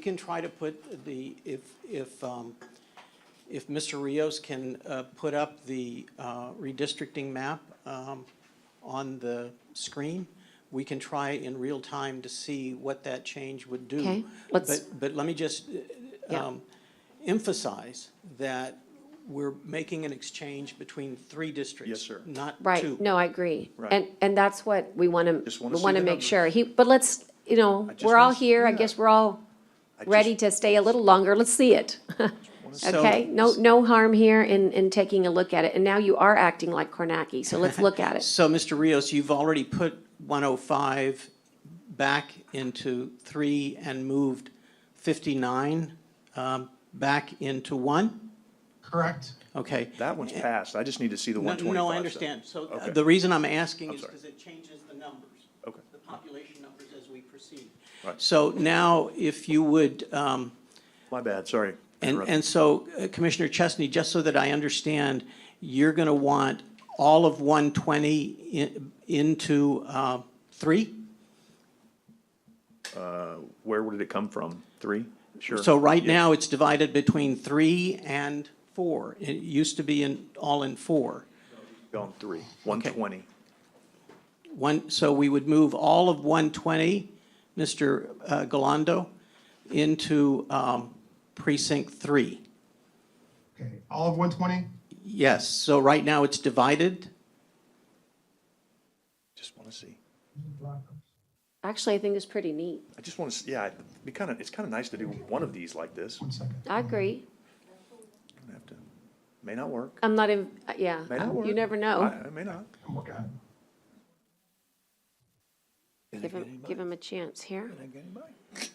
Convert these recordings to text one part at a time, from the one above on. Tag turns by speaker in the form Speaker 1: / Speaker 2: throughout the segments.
Speaker 1: We can try to put the, if, if, um, if Mr. Rios can uh, put up the uh, redistricting map um, on the screen, we can try in real time to see what that change would do.
Speaker 2: Okay, let's-
Speaker 1: But, but let me just uh,
Speaker 2: Yeah.
Speaker 1: um, emphasize that we're making an exchange between three districts.
Speaker 3: Yes, sir.
Speaker 1: Not two.
Speaker 2: Right, no, I agree.
Speaker 3: Right.
Speaker 2: And, and that's what we want
Speaker 3: Just
Speaker 2: to,
Speaker 3: wanna
Speaker 2: we
Speaker 3: see
Speaker 2: want to
Speaker 3: the
Speaker 2: make
Speaker 3: numbers.
Speaker 2: sure. He, but let's, you know,
Speaker 3: I just
Speaker 2: we're all
Speaker 3: wanna see-
Speaker 2: here, I
Speaker 3: yeah.
Speaker 2: guess we're all
Speaker 3: I just-
Speaker 2: ready to stay a little longer, let's see it.
Speaker 1: So-
Speaker 2: Okay, no, no harm here in, in taking a look at it, and now you are acting like Kornacki, so let's look at it.
Speaker 1: So, Mr. Rios, you've already put 105 back into 3 and moved 59 um, back into 1?
Speaker 4: Correct.
Speaker 1: Okay.
Speaker 3: That one's passed. I just need to see the
Speaker 1: No,
Speaker 3: one twenty-five.
Speaker 1: No, I understand. So uh,
Speaker 3: Okay.
Speaker 1: the reason I'm asking
Speaker 3: I'm
Speaker 1: is
Speaker 3: sorry.
Speaker 1: because it changes the numbers.
Speaker 3: Okay.
Speaker 1: The population numbers as we proceed.
Speaker 3: Right.
Speaker 1: So now, if you would, um,
Speaker 3: My bad, sorry.
Speaker 1: and,
Speaker 3: Interrupted.
Speaker 1: and so uh, Commissioner Chesney, just so that I understand, you're going to want all of 120 i- into uh, 3?
Speaker 3: Where would it come from? Three? Sure.
Speaker 1: So right
Speaker 3: Yeah.
Speaker 1: now, it's divided between three and four. It used to be in, all in four.
Speaker 3: Gone three, one twenty.
Speaker 1: One, so we would move all of 120, Mr. uh, Galando, into um, precinct three.
Speaker 4: Okay, all of 120?
Speaker 1: Yes, so right now, it's divided.
Speaker 3: Just want to see.
Speaker 2: Actually, I think it's pretty neat.
Speaker 3: I just want to, see. yeah, it'd be kind of, it's kind of nice to do one of these like this.
Speaker 4: One second.
Speaker 2: I agree,
Speaker 3: I'm gonna have to- May not work.
Speaker 2: I'm not in, uh, yeah,
Speaker 3: May not work.
Speaker 2: Oh, you never know.
Speaker 3: I, I may not.
Speaker 4: I'm working on it.
Speaker 3: Did I
Speaker 2: Give
Speaker 3: get
Speaker 2: him,
Speaker 3: anybody?
Speaker 2: give him a chance here.
Speaker 3: Did I get anybody?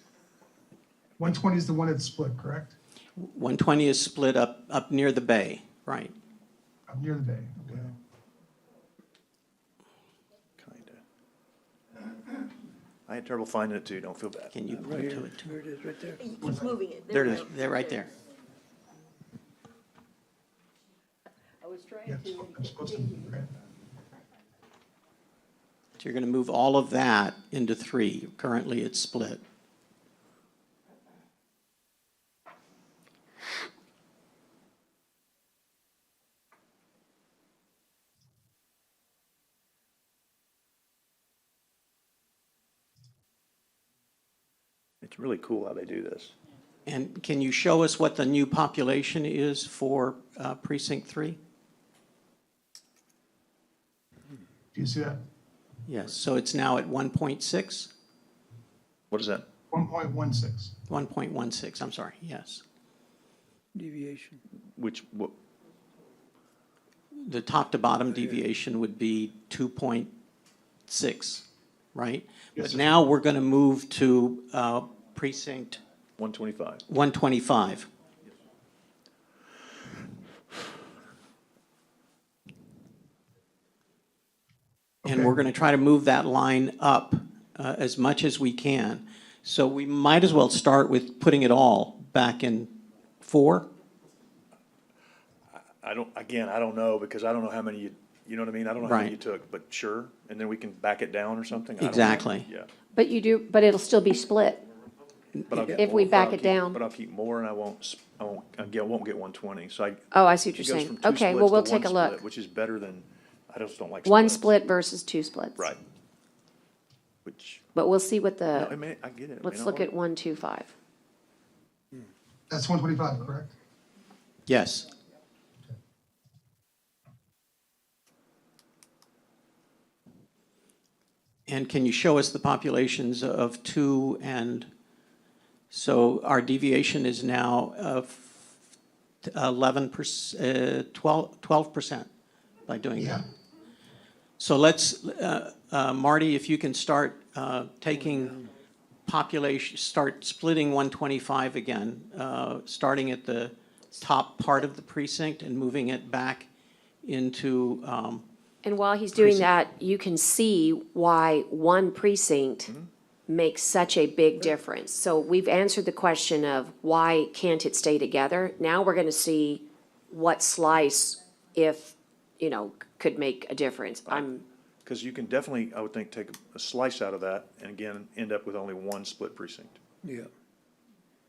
Speaker 4: 120 is the one that's split, correct?
Speaker 1: 120 is split up, up near the bay, right?
Speaker 4: I'm near the bay, okay.
Speaker 3: Kinda. I had trouble finding it too, don't feel bad.
Speaker 4: Uh,
Speaker 1: Can you point to it? too?
Speaker 5: He keeps moving it.
Speaker 3: There it is.
Speaker 1: They're right there.
Speaker 5: I was trying
Speaker 4: Yes,
Speaker 5: to.
Speaker 4: I'm supposed to, okay.
Speaker 1: So you're going to move all of that into three. Currently, it's split.
Speaker 3: It's really cool how they do this.
Speaker 1: And can you show us what the new population is for uh, precinct three?
Speaker 4: Do you see that?
Speaker 1: Yes, so it's now at 1.6,
Speaker 3: What is that?
Speaker 4: 1.16.
Speaker 1: 1.16, I'm sorry, yes.
Speaker 6: deviation.
Speaker 3: Which, what,
Speaker 1: The top to bottom deviation would be 2.6, right?
Speaker 4: Yes,
Speaker 1: But
Speaker 4: sir.
Speaker 1: now we're going to move to uh, precinct
Speaker 3: one twenty-five?
Speaker 1: 125. And we're going to try to move that line up uh, as much as we can. So we might as well start with putting it all back in four.
Speaker 3: I don't, again, I don't know, because I don't know how many you, you know what I mean? I don't know how many you
Speaker 1: Right.
Speaker 3: took, but sure, and then we can back it down or something? I don't know.
Speaker 1: Exactly.
Speaker 3: Yeah.
Speaker 2: But you do, but it'll still be split.
Speaker 3: But I'll get
Speaker 2: If we
Speaker 3: more- but
Speaker 2: back
Speaker 3: I'll
Speaker 2: it
Speaker 3: keep-
Speaker 2: down.
Speaker 3: But I'll keep more and I won't, s- I won't, again, I won't get one twenty, so I.
Speaker 2: Oh, I see what
Speaker 3: it
Speaker 2: you're
Speaker 3: goes from
Speaker 2: saying.
Speaker 3: two
Speaker 2: Okay,
Speaker 3: splits
Speaker 2: well, we'll
Speaker 3: to one
Speaker 2: take a
Speaker 3: split,
Speaker 2: look.
Speaker 3: Which is better than, I just don't like.
Speaker 2: One
Speaker 3: splits.
Speaker 2: split versus two splits.
Speaker 3: Right. Which,
Speaker 2: But we'll see what
Speaker 3: no, I
Speaker 2: the,
Speaker 3: mean, I get it. It
Speaker 2: Uh,
Speaker 3: may
Speaker 2: let's
Speaker 3: not
Speaker 2: look
Speaker 3: work.
Speaker 2: at one, two, five.
Speaker 4: That's 125, correct?
Speaker 1: Yes. And can you show us the populations of two and, so our deviation is now of uh, 11%, 12, 12% by doing
Speaker 4: Yeah.
Speaker 1: that. So let's, uh, uh, Marty, if you can start uh, taking population, start splitting 125 again, uh, starting at the top part of the precinct and moving it back into, um,
Speaker 2: And while he's doing
Speaker 1: Precinct.
Speaker 2: that, you can see why one precinct makes such a big difference. So we've answered the question of why can't it stay together? Now we're gonna see what slice, if, you know, could make a difference. I'm,
Speaker 3: Cause you can definitely, I would think, take a slice out of that and again, end up with only one split precinct.
Speaker 6: Yeah,